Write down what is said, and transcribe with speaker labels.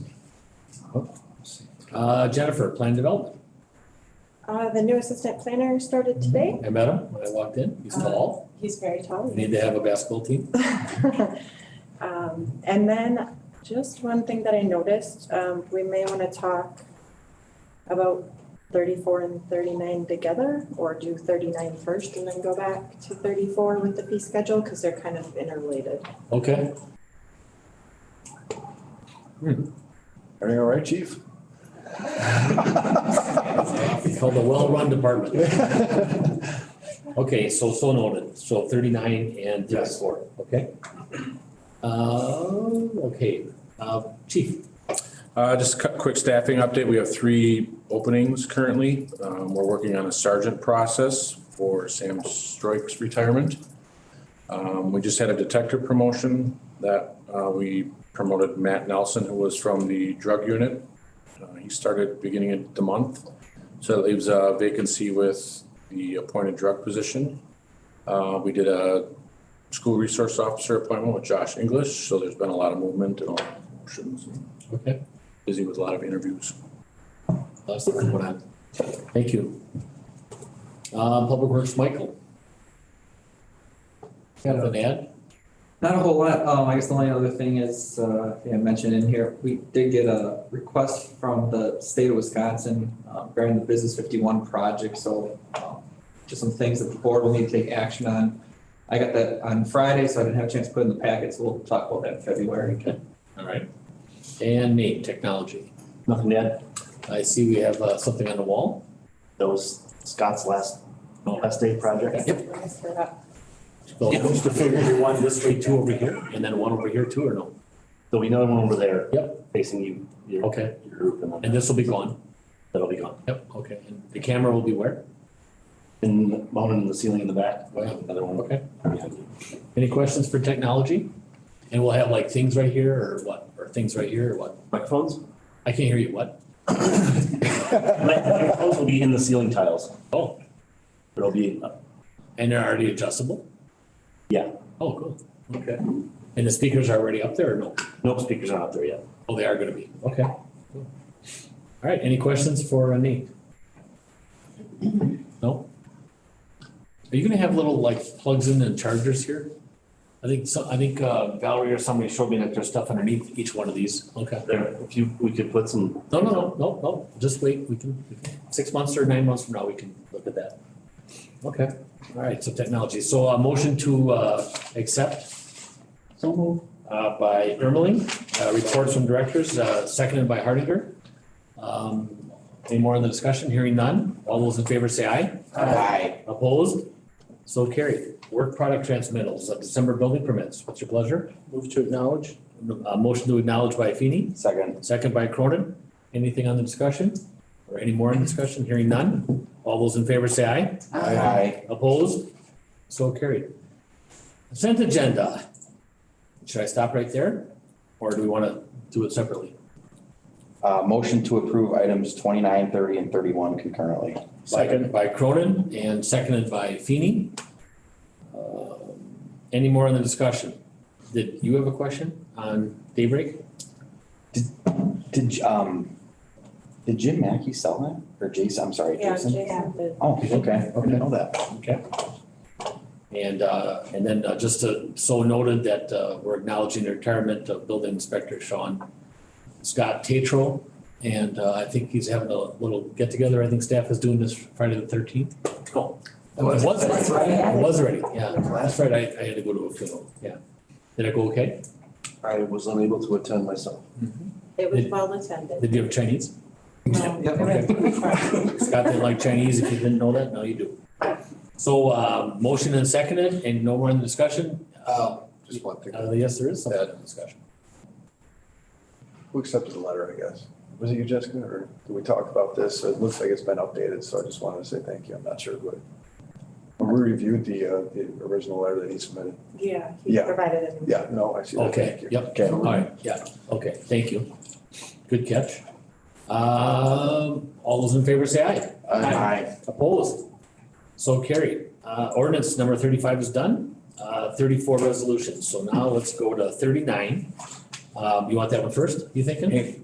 Speaker 1: Uh, Jennifer, plan development.
Speaker 2: Uh, the new assistant planner started today.
Speaker 1: I met him when I walked in. He's tall.
Speaker 2: He's very tall.
Speaker 1: We need to have a basketball team.
Speaker 2: Um, and then just one thing that I noticed, um, we may wanna talk about thirty-four and thirty-nine together, or do 39 first and then go back to thirty-four with the fee schedule, cause they're kind of interrelated.
Speaker 1: Okay,
Speaker 3: Everything all right, chief?
Speaker 1: we call the well-run department. Okay, so, so noted. So thirty-nine and
Speaker 3: Yes.
Speaker 1: thirty-four, okay? Uh, okay, uh, chief,
Speaker 4: Uh, just a cu- quick staffing update. We have three openings currently. Um, we're working on a sergeant process for Sam Stroik's retirement. Um, we just had a detective promotion that, uh, we promoted Matt Nelson, who was from the drug unit. Uh, he started beginning of the month, so that leaves a vacancy with the appointed drug position. Uh, we did a school resource officer appointment with Josh English, so there's been a lot of movement and options and
Speaker 1: okay,
Speaker 4: busy with a lot of interviews.
Speaker 1: last one, what I, thank you. Uh, Public Works, Michael. Got an ad?
Speaker 5: Not a whole lot. Um, I guess the only other thing is, uh, I think I mentioned in here, we did get a request from the state of Wisconsin uh, regarding the Business fifty-one project, so, um, just some things that the board will need to take action on. I got that on Friday, so I didn't have a chance to put it in the packet, so we'll talk about that in February.
Speaker 1: All right. And Nate, technology.
Speaker 6: Nothing to add.
Speaker 1: I see we have uh, something on the wall.
Speaker 6: That was Scott's last, last day project.
Speaker 1: So-
Speaker 6: Yeah, just to figure you one this way, two over here.
Speaker 1: And then one over here too, or no?
Speaker 6: There'll be another one over there.
Speaker 1: Yep.
Speaker 6: Facing you, your,
Speaker 1: Okay,
Speaker 6: your group, and
Speaker 1: and
Speaker 6: then
Speaker 1: this will be gone.
Speaker 6: that'll be gone.
Speaker 1: Yep, okay. And the camera will be where?
Speaker 6: And mounted in the ceiling in the back, we'll have another one.
Speaker 1: Okay.
Speaker 6: behind you.
Speaker 1: Any questions for technology? And we'll have like things right here or what? Or things right here or what?
Speaker 6: Microphones?
Speaker 1: I can't hear you. What?
Speaker 6: Microphones will be in the ceiling tiles.
Speaker 1: Oh,
Speaker 6: It'll be, uh,
Speaker 1: and they're already adjustable?
Speaker 6: Yeah.
Speaker 1: Oh, cool. Okay. And the speakers are already up there or no?
Speaker 6: no speakers are out there yet.
Speaker 1: Oh, they are gonna be. Okay. cool. All right, any questions for uh, Nate? No? Are you gonna have little like plugs in and chargers here? I think so, I think uh, Valerie or somebody showed me that there's stuff underneath each one of these. Okay.
Speaker 6: There, if you, we could put some,
Speaker 1: No, no, no, no, no, just wait, we can, we can- six months or nine months from now, we can look at that. Okay, all right, so technology, so a motion to uh accept. So Uh by Ermeling, uh reports from directors, uh seconded by Hardinger. Um, any more in the discussion, hearing none, all those in favor say aye. Aye. Opposed? So carried, work product transmittals of December building permits, what's your pleasure?
Speaker 3: Move to acknowledge?
Speaker 1: Uh motion to acknowledge by Feeny.
Speaker 6: second,
Speaker 1: Second by Cronin. Anything on the discussion? Or any more in discussion? Hearing none. All those in favor say aye.
Speaker 3: Aye.
Speaker 1: Opposed? So carried. Consent agenda. Should I stop right there? Or do we want to do it separately?
Speaker 7: Uh, motion to approve items 29, 30, and thirty-one concurrently.
Speaker 1: Second. By Cronin and seconded by Feeny. Uh, Any more in the discussion? Did you have a question on daybreak?
Speaker 7: Did, um, did Jim Mackey sell that? Or Jason, I'm sorry,
Speaker 2: Yeah,
Speaker 7: Jason?
Speaker 2: Jason did.
Speaker 7: Oh, okay, I
Speaker 1: Okay.
Speaker 7: didn't know that.
Speaker 1: And, uh, and then uh, just to, so noted that, uh, we're acknowledging the retirement of building inspector Sean Scott Tatro. And, uh, I think he's having a little get together. I think staff is doing this Friday the thirteenth. Oh. It was,
Speaker 5: That's right.
Speaker 1: it was already, yeah. That's right. I, I had to go to a funeral, yeah. Did it go okay?
Speaker 8: I was unable to attend myself.
Speaker 2: It was well attended.
Speaker 1: Did you have Chinese?
Speaker 5: Yep.
Speaker 1: Scott didn't like Chinese. If you didn't know that, now you do. So, uh, motion and seconded and no more in the discussion. Uh,
Speaker 8: Just one thing.
Speaker 1: uh, yes, there is some in discussion.
Speaker 3: Who accepted the letter, I guess? Was it you, Jessica, or did we talk about this? It looks like it's been updated, so I just wanted to say thank you. I'm not sure, but we reviewed the, uh, the original letter that he submitted.
Speaker 2: Yeah, he
Speaker 3: Yeah.
Speaker 2: provided it.
Speaker 3: Yeah, no, I see that. Thank
Speaker 1: Okay,
Speaker 3: you.
Speaker 1: yep.
Speaker 7: Okay.
Speaker 1: All right, yeah, okay, thank you. Good catch. Um, all those in favor say aye.
Speaker 7: Aye.
Speaker 1: Opposed? So carried. Uh, ordinance number thirty-five is done, uh, thirty-four resolutions, so now let's go to thirty-nine. Um, you want that one first, you thinking?